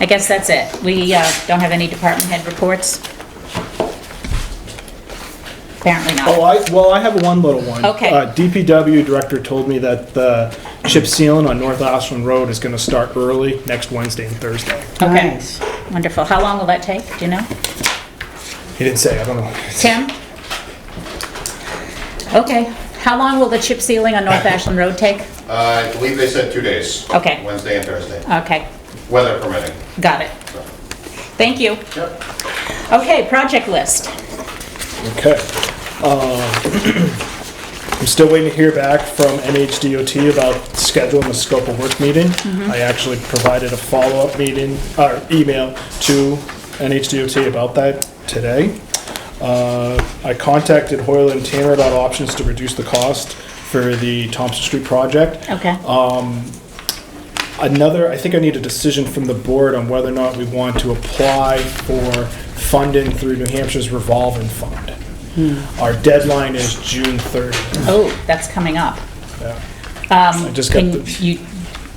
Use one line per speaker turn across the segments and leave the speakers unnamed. I guess that's it. We uh, don't have any department head reports? Apparently
Oh,
not.
I, well, I have one little one.
Okay.
Uh, DPW director told me that the chip sealing on North Ashland Road is gonna start early next Wednesday and Thursday.
Okay,
Nice.
wonderful. How long will that take? Do you know?
He didn't say, I don't know.
Tim? Okay. How long will the chip sealing on North Ashland Road take?
Uh, I believe they said two days.
Okay.
Wednesday and Thursday,
Okay,
weather permitting.
got it. Thank you.
Yep.
Okay, project list.
Okay. Um, I'm still waiting to hear back from NHDOT about scheduling the scope of work meeting. I actually provided a follow-up meeting, or email to NHDOT about that today. Uh, I contacted Hoyle and Tanner about options to reduce the cost for the Thompson Street project.
Okay.
Um, Another, I think I need a decision from the board on whether or not we want to apply for funding through New Hampshire's revolving fund. Our deadline is June 30th.
Oh, that's coming up.
I just got
Can
the,
you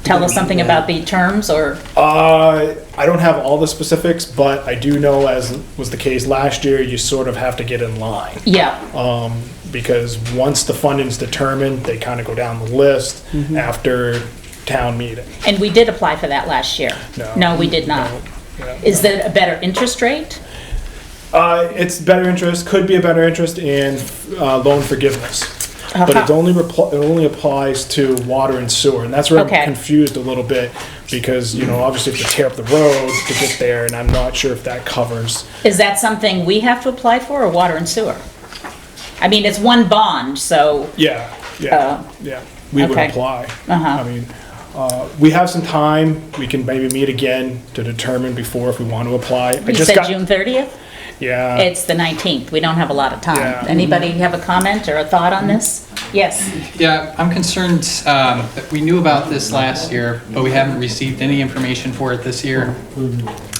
tell us something about the terms or,
uh, I don't have all the specifics, but I do know, as was the case last year, you sort of have to get in line.
yeah,
Because once the funding's determined, they kind of go down the list after town meeting.
and we did apply for that last year.
No.
No, we did not. Is that a better interest rate?
Uh, it's better interest, could be a better interest in uh, loan forgiveness. But it
Uh-huh.
only, repl- it only applies to water and sewer, and that's where
Okay.
I'm confused a little bit, because, you know, obviously if you tear up the road to get there, and I'm not sure if that covers.
Is that something we have to apply for or water and sewer? I mean, it's one bond, so,
Yeah, yeah, yeah, we would
Oh. okay.
apply.
Uh-huh.
I mean, uh, we have some time, we can maybe meet again to determine before if we want to apply. I
you
just
said
got-
June 30th?
Yeah,
It's the 19th. We don't have a lot of time.
Yeah. Mm-hmm.
Anybody have a comment or a thought on this? Yes.
Yeah, I'm concerned um, that we knew about this last year, but we haven't received any information for it this year.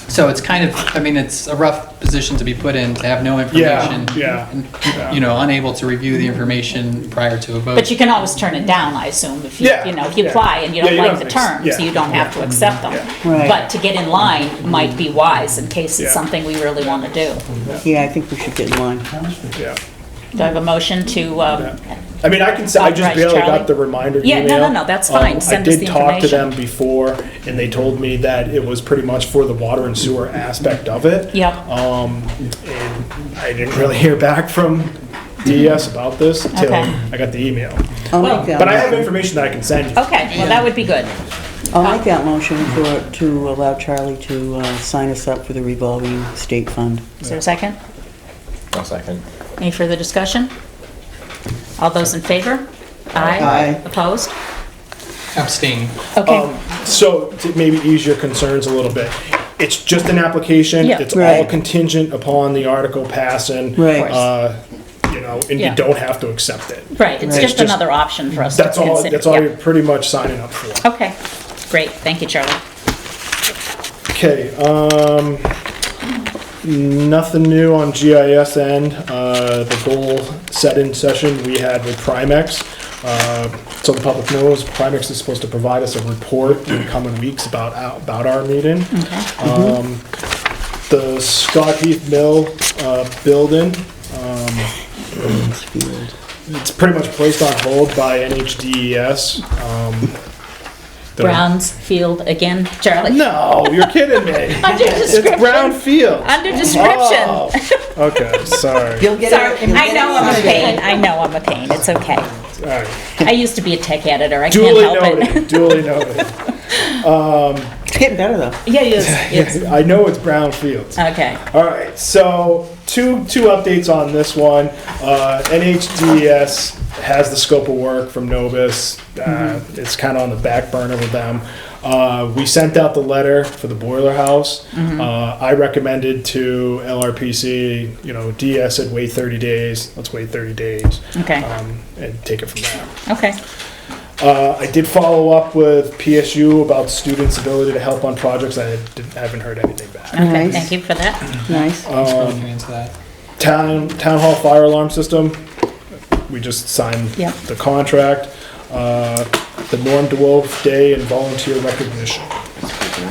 So it's kind of, I mean, it's a rough position to be put in, to have no information.
yeah,
and,
yeah.
You know, unable to review the information prior to a vote.
But you can always turn it down, I assume, if you,
Yeah,
you know, if you
yeah.
apply and you
Yeah,
don't
you
like
don't
the
have to-
terms,
yeah.
you don't have to accept them.
Yeah.
Right.
But to get in line might be wise in case it's
Yeah.
something we really want to do.
Yeah, I think we should get in line.
yeah.
Do I have a motion to, um,
I mean, I can, say I just
Authorize
barely
Charlie.
got the reminder
Yeah, no,
email.
no, no, that's fine.
Um,
Send us the
I did talk to
information.
them before, and they told me that it was pretty much for the water and sewer aspect of it.
yeah,
Um, and I didn't really hear back from DES about this till
Okay.
I got the email.
I'll
Well-
make that.
But I have
motion.
information that I can send you.
okay, well, that would be good.
I'll make that motion for, to allow Charlie to uh, sign us up for the revolving state fund.
Is there a second?
One second.
Any further discussion? All those in favor? Aye.
Aye.
Opposed?
Abstain.
Okay,
So to maybe ease your concerns a little bit, it's just an application.
Yeah.
It's all
Right.
contingent upon the article passing.
Right. Of course.
Uh, you know, and
Yeah.
you don't have to accept it.
right, it's
It's
just
just-
another option for us to
That's
consider.
all, that's all
yeah.
you're pretty much signing up for.
Okay, great, thank you, Charlie.
Okay, um, nothing new on GIS end. Uh, the goal setting session we had with Primex. Uh, so the public knows, Primex is supposed to provide us a report in the coming weeks about, our- about our meeting. Um, the Scott Heath Mill, uh, building, um, it's pretty much placed on hold by NHDES. E Um, the-
Browns Field again, Charlie?
No, you're kidding me.
Under
It's
description.
brownfield.
Under description.
Oh, okay, sorry.
You'll get
Sorry,
it. you'll
I
get
know
it.
I'm a pain, I know I'm a pain, it's okay.
All right.
I used to be a tech editor, I can't
Duly
help it.
noted, duly noted.
It's getting better though.
Yeah, yes, yes,
I know it's brownfields.
okay.
All right, so two, two updates on this one. Uh, NHDES has the scope of work from Novus. Uh,
Mm-hmm.
It's kind of on the back burner with them. Uh, we sent out the letter for the boiler house.
Mm-hmm.
Uh, I recommended to LRPC, you know, DS said wait 30 days. Let's wait 30 days.
Okay.
Um, and take it from there.
Okay,
Uh, I did follow up with PSU about students' ability to help on projects. I didn't, haven't heard anything back.
okay,
Nice.
thank you for that.
Nice.
Let's go through into that.
Town, town hall fire alarm system, we just signed
Yep.
the contract. Uh, The Norm DeWolf Day and volunteer recognition.